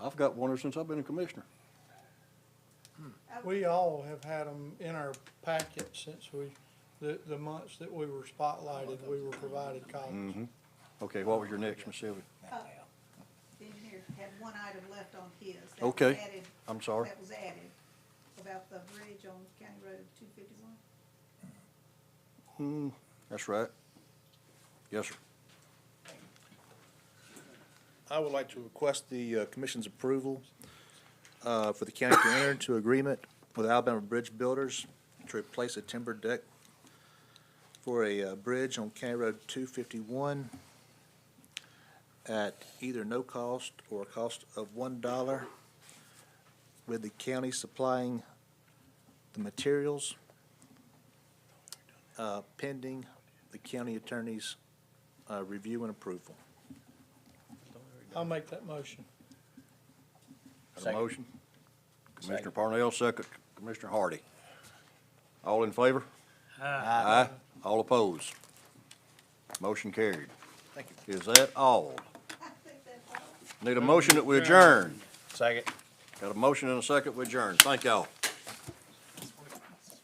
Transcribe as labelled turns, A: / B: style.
A: got one ever since I've been a commissioner.
B: We all have had them in our packet since we, the, the months that we were spotlighted, we were provided copies.
A: Okay, what was your next, Miss Sylvia?
C: Oh, The engineer had one item left on his. that was
A: Okay,
C: added-
A: I'm sorry.
C: That was added about the bridge on County Road two fifty-one.
A: Hmm, that's right. Yes, sir.
D: I would like to request the uh, commission's approval uh, for the county to enter into agreement with Alabama Bridge Builders to replace a timber deck for a uh, bridge on County Road 251 at either no cost or a cost of $1, with the county supplying the materials uh, pending the county attorney's uh, review and approval.
B: I'll make that motion.
A: Got a motion? Commissioner Parnell, second. Commissioner Hardy. All in favor? Aye. All opposed? Motion carried.
D: Thank you.
A: Is that all?
C: I think that's all.
A: Need a motion that we adjourn.
D: Second.
A: Got a motion and a second, we adjourn. Thank y'all.